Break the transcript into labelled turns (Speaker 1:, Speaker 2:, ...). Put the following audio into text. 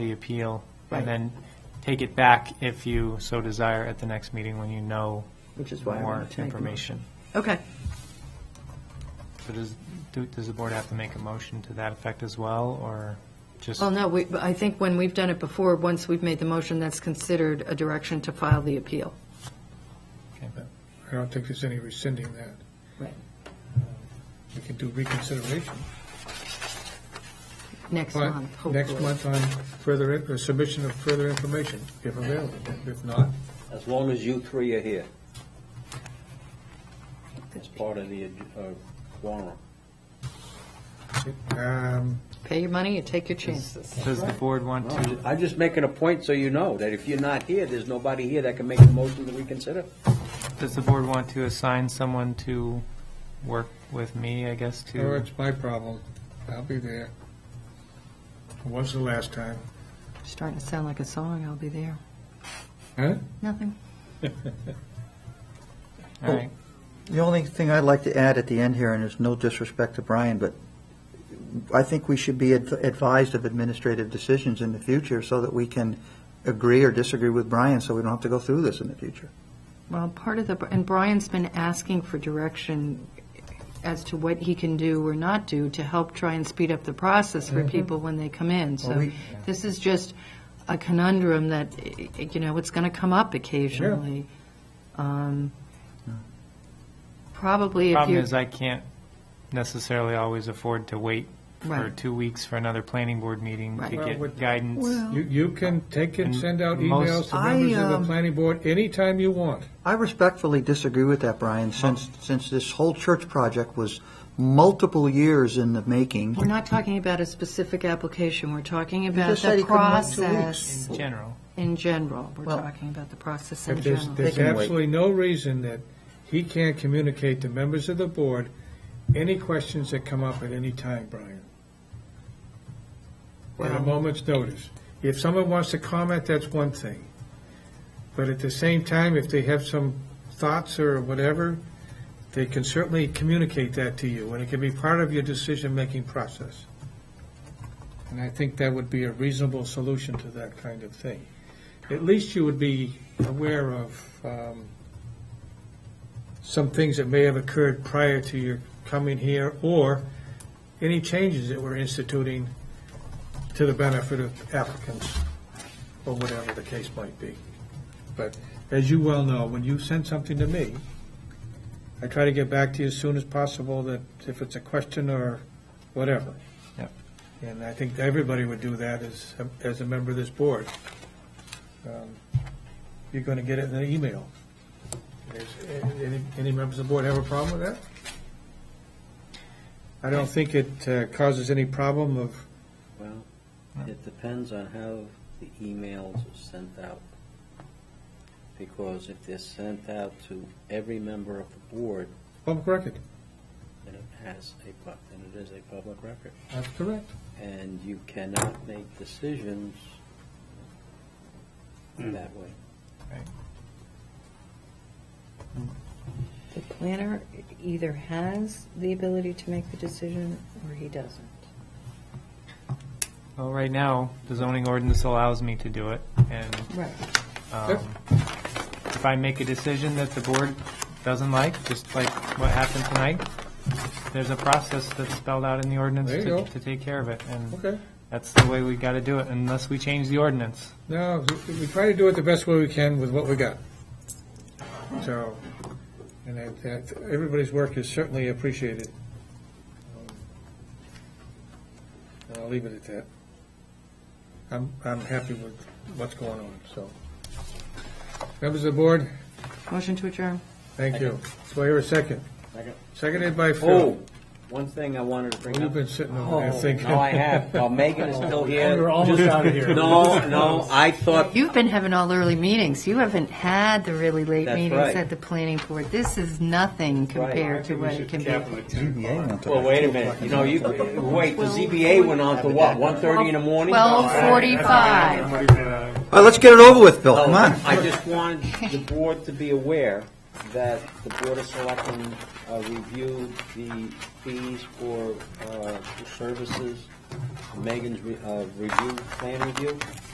Speaker 1: the appeal,
Speaker 2: Right.
Speaker 1: and then take it back if you so desire at the next meeting when you know
Speaker 2: Which is why I
Speaker 1: more
Speaker 2: wanted to make a motion.
Speaker 1: information.
Speaker 2: Okay,
Speaker 1: So does, do- does the board have to make a motion to that effect as well, or just?
Speaker 2: well, no, we, but I think when we've done it before, once we've made the motion, that's considered a direction to file the appeal.
Speaker 1: okay.
Speaker 3: I don't think there's any rescinding that.
Speaker 2: Right.
Speaker 3: We can do reconsideration.
Speaker 2: Next
Speaker 3: But
Speaker 2: month, hopefully.
Speaker 3: next month on further, in- uh, submission of further information, if available. If not,
Speaker 4: As long as you three are here. It's part of the ad- uh, quorum.
Speaker 3: um,
Speaker 2: Pay your money and take your chances.
Speaker 1: Does the board want
Speaker 4: I'm
Speaker 1: to,
Speaker 4: ju- I'm just making a point so you know, that if you're not here, there's nobody here that can make a motion to reconsider.
Speaker 1: does the board want to assign someone to work with me, I guess,
Speaker 3: oh,
Speaker 1: to?
Speaker 3: it's my problem. I'll be there. Was the last time.
Speaker 2: Starting to sound like a song, I'll be there.
Speaker 3: Huh?
Speaker 2: Nothing.
Speaker 1: All right,
Speaker 5: The only thing I'd like to add at the end here, and there's no disrespect to Brian, but I think we should be ad- advised of administrative decisions in the future so that we can agree or disagree with Brian, so we don't have to go through this in the future.
Speaker 2: Well, part of the, and Brian's been asking for direction as to what he can do or not do to help try and speed up the process for people when they come in.
Speaker 5: Mm-hmm. Well,
Speaker 2: So
Speaker 5: we-
Speaker 2: this is just a conundrum that, eh, eh, you know, it's going to come up occasionally. Um, Probably if
Speaker 1: problem
Speaker 2: you're,
Speaker 1: is I can't necessarily always afford to wait for
Speaker 2: Right.
Speaker 1: two weeks for another planning board meeting to
Speaker 2: Right.
Speaker 3: Well,
Speaker 1: get
Speaker 3: with-
Speaker 1: guidance.
Speaker 3: You, you can take it, send out
Speaker 1: And most-
Speaker 3: emails to
Speaker 5: I,
Speaker 3: members of the
Speaker 5: um,
Speaker 3: planning board anytime you want.
Speaker 5: I respectfully disagree with that, Brian, since, since this whole church project was multiple years in the making.
Speaker 2: we're not talking about a specific application, we're talking about
Speaker 5: just said
Speaker 2: the
Speaker 5: he couldn't wait two
Speaker 2: process
Speaker 1: In general,
Speaker 2: in general. We're
Speaker 5: Well-
Speaker 2: talking about the process in
Speaker 3: If there's,
Speaker 2: general.
Speaker 3: there's
Speaker 5: They can wait.
Speaker 3: absolutely no reason that he can't communicate to members of the board any questions that come up at any time, Brian. At a
Speaker 2: Well-
Speaker 3: moment's notice. If someone wants to comment, that's one thing. But at the same time, if they have some thoughts or whatever, they can certainly communicate that to you, and it can be part of your decision-making process. And I think that would be a reasonable solution to that kind of thing. At least you would be aware of um, some things that may have occurred prior to your coming here, or any changes that we're instituting to the benefit of applicants, or whatever the case might be. But as you well know, when you send something to me, I try to get back to you as soon as possible that if it's a question or whatever.
Speaker 1: Yep.
Speaker 3: And I think everybody would do that as, as a member of this board. Um, You're going to get it in an email. Is- Any, any members of the board have a problem with that? I don't think it uh, causes any problem of
Speaker 4: Well, it depends on how the emails are sent out. Because if they're sent out to every member of the board,
Speaker 3: public record.
Speaker 4: then it has a, pub- then it is a public record.
Speaker 3: That's correct.
Speaker 4: And you cannot make decisions that way.
Speaker 6: The planner either has the ability to make the decision or he doesn't.
Speaker 1: well, right now, the zoning ordinance allows me to do it, and
Speaker 6: Right.
Speaker 1: Um, If I make a decision that the board doesn't like, just like what happened tonight, there's a process that's spelled out in the ordinance
Speaker 3: There you
Speaker 1: to,
Speaker 3: go.
Speaker 1: to take care of it, and
Speaker 3: Okay.
Speaker 1: that's the way we gotta do it, unless we change the ordinance.
Speaker 3: No, we- we try to do it the best way we can with what we got. So, and I- that, everybody's work is certainly appreciated. Um, And I'll leave it at that. I'm, I'm happy with what's going on, so. Members of the board,
Speaker 2: Motion to adjourn.
Speaker 3: thank you. So I hear a second.
Speaker 4: Second.
Speaker 3: Seconded by
Speaker 4: Oh,
Speaker 3: Phil.
Speaker 4: one thing I wanted to bring
Speaker 3: You've
Speaker 4: up.
Speaker 3: been sitting
Speaker 4: Oh,
Speaker 3: over there thinking.
Speaker 4: no, I have. Well, Megan is still here. We're almost
Speaker 3: out of here.
Speaker 4: No, no, I thought,
Speaker 2: You've been having all early meetings. You haven't had the really late
Speaker 4: That's
Speaker 2: meetings
Speaker 4: right.
Speaker 2: at the planning board. This is nothing compared to what it can be.
Speaker 5: ZBA went to
Speaker 4: well,
Speaker 5: like
Speaker 4: wait a
Speaker 5: two
Speaker 4: minute,
Speaker 5: o'clock in
Speaker 4: you
Speaker 5: the
Speaker 4: know, you, wait, the ZBA went on to what, 1:30 in the morning?
Speaker 2: Twelve forty-five.
Speaker 3: uh,
Speaker 5: All right, let's get it over with, Bill, come on.
Speaker 4: I just wanted the board to be aware that the Board of Selectmen uh, reviewed the fees for uh, services Megan's re- uh, review, plan review?